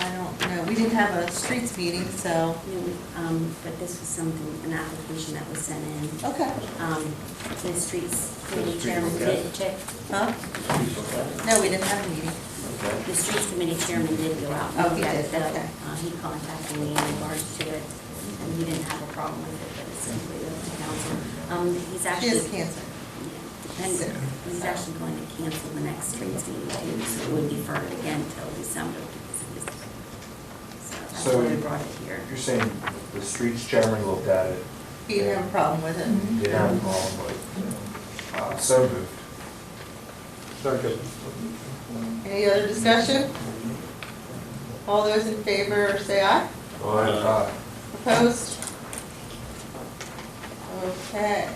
Um, We didn't have a streets meeting, so, No, we- um, But this was something, an application that was sent in. okay, Um, The streets, committee street chairman look did check, huh? No, we didn't have a meeting. Okay. the streets committee chairman did go out. and Oh, he look at did, it, though. okay. Uh, He contacted me in regards to it, and he didn't have a problem with it, but it's simply up to council. Um, He's She actually. has cancer. And he's actually going to cancel the next streets meeting too, so it would defer it again till December. because it was- So that's So- why we brought it here. You're saying the streets chairman looked at it? He didn't have a problem with Mm-hmm. it. Didn't have a problem with it. Uh, So moved. Second. Any other discussion? All those in favor, say aye. Uh, Opposed? Okay.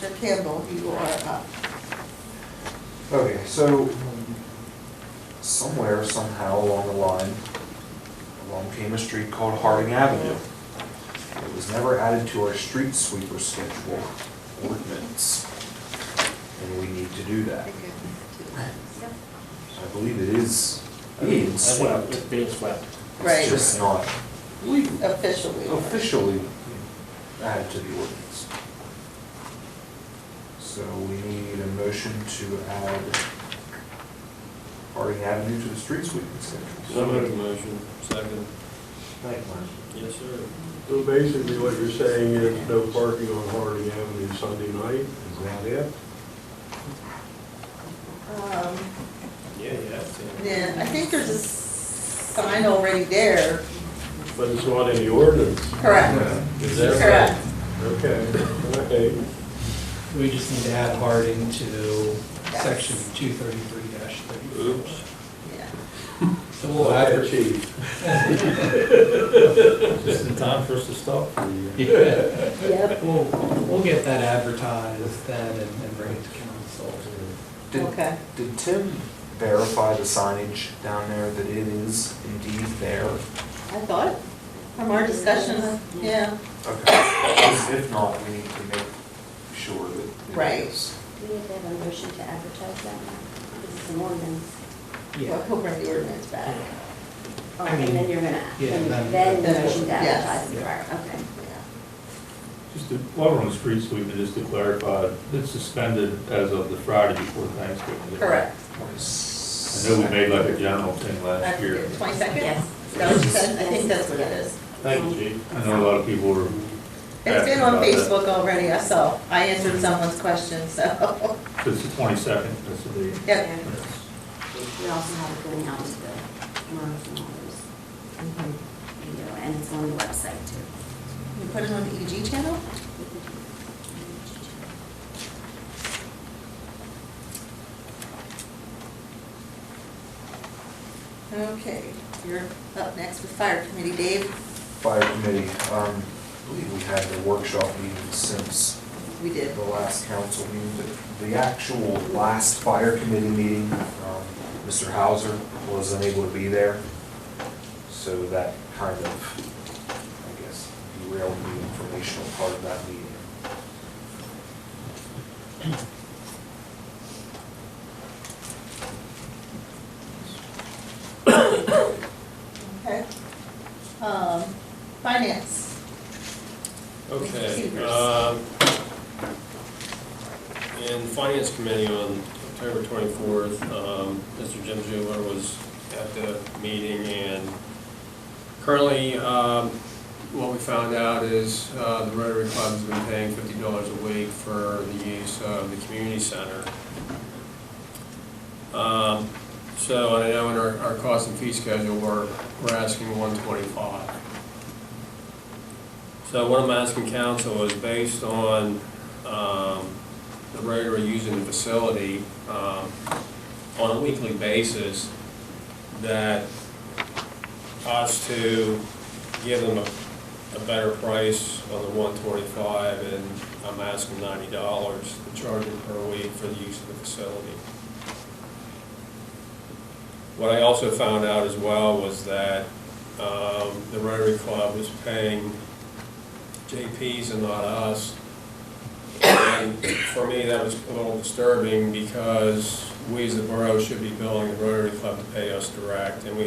Mr. Campbell, you are up. Okay, so somewhere, somehow along the line, along came a street called Harding Avenue. It was never added to our street sweeper schedule ordinance. And we need to do that. I believe it is being swept. It's being swept. It's just not Officially. officially added to the ordinance. So we need a motion to add Harding Avenue to the street sweeping schedule. So moved, motion, second. Thank you, Mark. Yes, sir. So basically what you're saying is no parking on Harding Avenue Sunday night? Is that it? Um, Yeah, yeah. Yeah, I think there's a sign already there. But it's not in the ordinance. Correct. Is that right? Correct. Okay, okay. We just need to add Harding to Yes. section two thirty-three dash thirty. Oops. Yeah. So Well, we'll I add. achieved. Just in time for us to stop for you. Yeah. Yep. We'll, we'll get that advertised then and and bring it to council. Did, Okay. did Tim verify the signage down there that it is indeed there? I thought, from our discussion, yeah, Okay, because if not, we need to make sure that Right. it is. We need to have a motion to advertise that now. This is an ordinance. well, Yeah. he'll bring the ordinance back. Oh, I And then mean, you're gonna, yeah, then then- then the motion to Yes. advertise the prior, okay. Yeah. Just to, while we're on the street sweeping, just to clarify, it's suspended as of the Friday before Thanksgiving. isn't it? Correct. I know we made like a general thing last year. Twenty-second? Yes. That was, I think that's what it is. Thank you, Chief. I know a lot of people were. It's been on Facebook already, I saw, I answered someone's question, so, It's the twenty-second, that's the date. yep. And We also have it going out to the owners and all those, Mm-hmm. you know, and it's on the website too. You put it on the EG channel? Okay, you're up next with fire committee, Dave. Fire committee, um, I believe we had the workshop meeting since We did. the last council meeting, the- the actual last fire committee meeting, um, Mr. Hauser was unable to be there. So that kind of, I guess, derailed the informational part of that meeting. Okay. Um, finance. Okay. Receivers. um, In the Finance Committee on October 24th, um, Mr. Jim Zuber was at the meeting, and currently, um, what we found out is uh, the Rotary Club has been paying $50 a week for the use of the community center. Um, So, and I know in our our cost and fee schedule, we're we're asking 125 so what I'm asking council is based on um, the Rotary using the facility um, on a weekly basis, that us to give them a, a better price on the one twenty-five, and I'm asking ninety dollars to charge them per week for the use of the facility. What I also found out as well was that um, the Rotary Club was paying JPs and not us. And for me, that was a little disturbing because we as the borough should be billing the Rotary Club to pay us direct, and we